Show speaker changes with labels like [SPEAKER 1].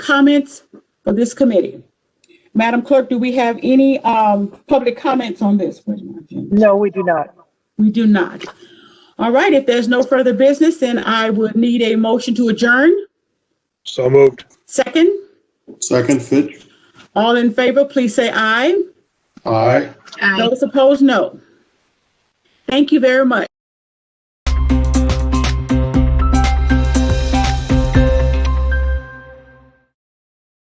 [SPEAKER 1] comments for this committee? Madam Clerk, do we have any um, public comments on this? Where's my agenda?
[SPEAKER 2] No, we do not.
[SPEAKER 1] We do not. All right, if there's no further business, then I would need a motion to adjourn.
[SPEAKER 3] So moved.
[SPEAKER 1] Second,
[SPEAKER 4] Second, Fitch.
[SPEAKER 1] all in favor, please say aye.
[SPEAKER 4] Aye.
[SPEAKER 1] Those opposed, no. Thank you very much.